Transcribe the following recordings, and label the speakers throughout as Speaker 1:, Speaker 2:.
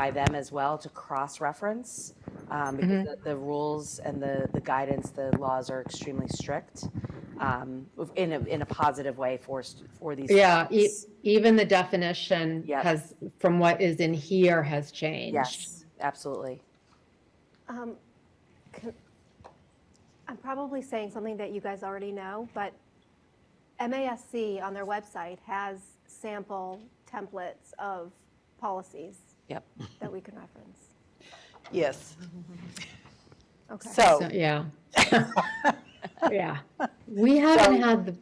Speaker 1: by them as well to cross-reference, um, because
Speaker 2: Mm-hmm.
Speaker 1: the- the rules and the, the guidance, the laws are extremely strict, um, in a, in a positive way for, st- for these.
Speaker 2: Yeah, e-
Speaker 1: students.
Speaker 2: even the definition
Speaker 1: Yep.
Speaker 2: has, from what is in here has changed.
Speaker 1: Yes, absolutely.
Speaker 3: Um, can- I'm probably saying something that you guys already know, but MASC on their website has sample templates of policies
Speaker 1: Yep.
Speaker 3: that we can reference.
Speaker 4: Yes.
Speaker 2: Mm-hmm.
Speaker 3: Okay.
Speaker 4: So,
Speaker 2: So, yeah. Yeah. We haven't had the,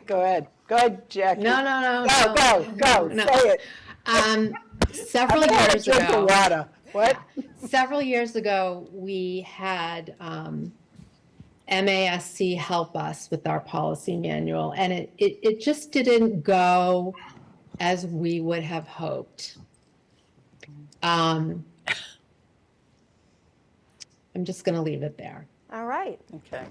Speaker 4: go ahead. Go ahead, Jackie.
Speaker 2: no, no, no.
Speaker 4: Go, go, go.
Speaker 2: no.
Speaker 4: Say it.
Speaker 2: Um, several
Speaker 4: I'm gonna
Speaker 2: years
Speaker 4: drink the
Speaker 2: ago.
Speaker 4: water. What?
Speaker 2: several years ago, we had um, MASC help us with our policy manual, and it, it, it just didn't go as we would have hoped. Um, I'm just going to leave it there.
Speaker 3: All right.
Speaker 4: Okay.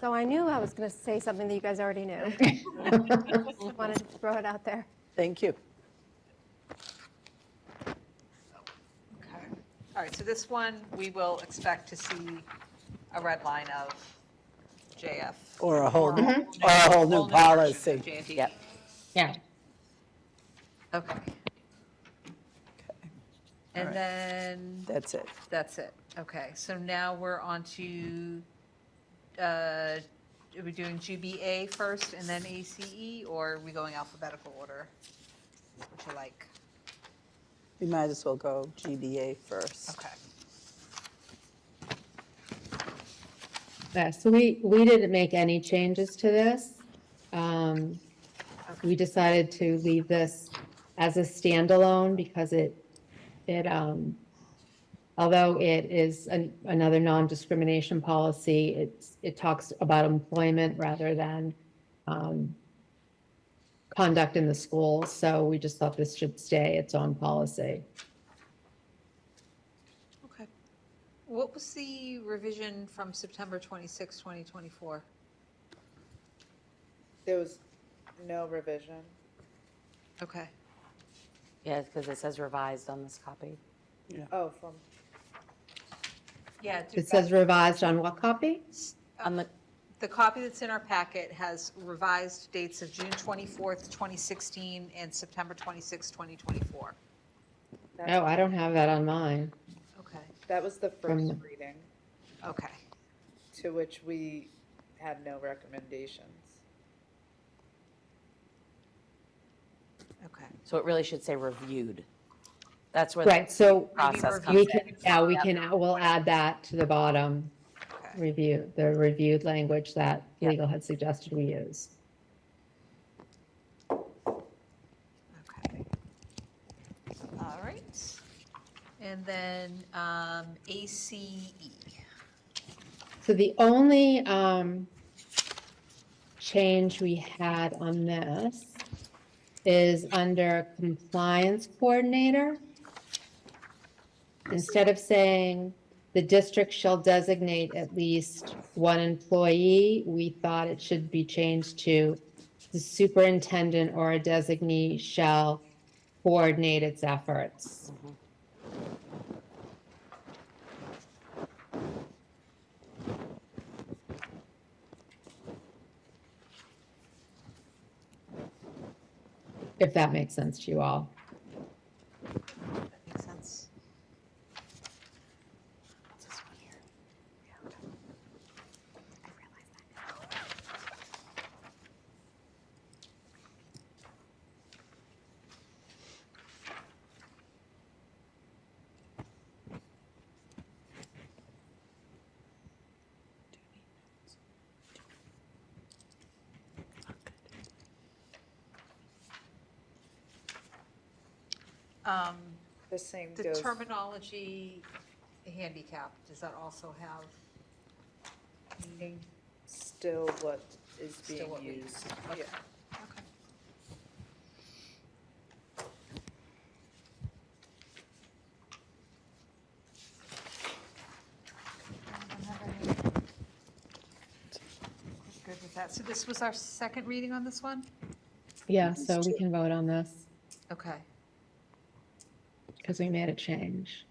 Speaker 3: So I knew I was going to say something that you guys already knew. Just Wanted to throw it out there.
Speaker 4: Thank you.
Speaker 5: Okay. All right, so this one, we will expect to see a red line of JF.
Speaker 4: Or a whole, or
Speaker 5: new-
Speaker 4: a whole new
Speaker 5: version of
Speaker 4: policy.
Speaker 5: JNDE.
Speaker 1: Yep.
Speaker 2: Yeah.
Speaker 5: Okay. And then,
Speaker 4: That's it.
Speaker 5: that's it. Okay, so now we're on to, uh, are we doing GBA first and then ACE, or are we going alphabetical order? Would you like?
Speaker 4: We might as well go GBA first.
Speaker 5: Okay.
Speaker 2: Yeah, so we, we didn't make any changes to this. Um, We decided to leave this as a standalone because it, it, um, although it is an- another non-discrimination policy, it's, it talks about employment rather than um, conduct in the school, so we just thought this should stay its own policy.
Speaker 5: Okay. What was the revision from September 26, 2024?
Speaker 6: There was no revision.
Speaker 5: Okay.
Speaker 1: Yeah, because it says revised on this copy.
Speaker 6: Oh, from,
Speaker 5: Yeah.
Speaker 2: It says revised on what copy?
Speaker 1: On the,
Speaker 5: The copy that's in our packet has revised dates of June 24th, 2016, and September 26, 2024.
Speaker 2: Oh, I don't have that on mine.
Speaker 5: Okay,
Speaker 6: that was the first
Speaker 2: From-
Speaker 6: reading,
Speaker 5: okay.
Speaker 6: to which we had no recommendations.
Speaker 5: Okay.
Speaker 1: so it really should say reviewed. That's where. the-
Speaker 2: Right, so
Speaker 1: Process comes
Speaker 2: We can, yeah, we can, we'll add that to the bottom,
Speaker 5: Okay.
Speaker 2: review, the reviewed language that
Speaker 1: Yeah.
Speaker 2: legal had suggested we use.
Speaker 5: Okay. All right. And then um, E. ACE.
Speaker 2: So the only um, change we had on this is under compliance coordinator. Instead of saying the district shall designate at least one employee, we thought it should be changed to the superintendent or a designee shall coordinate its efforts. If that makes sense to you all.
Speaker 5: That makes sense? Um,
Speaker 6: The same
Speaker 5: The
Speaker 6: goes,
Speaker 5: terminology handicap, does that also have meaning?
Speaker 6: still what is
Speaker 5: Still
Speaker 6: being
Speaker 5: what we-
Speaker 6: used.
Speaker 5: Okay.
Speaker 6: Yeah.
Speaker 5: Okay. I don't have any- Good with that. So this was our second reading on this one?
Speaker 2: Yeah, so we can vote on this.
Speaker 5: Okay.
Speaker 2: because we made a change.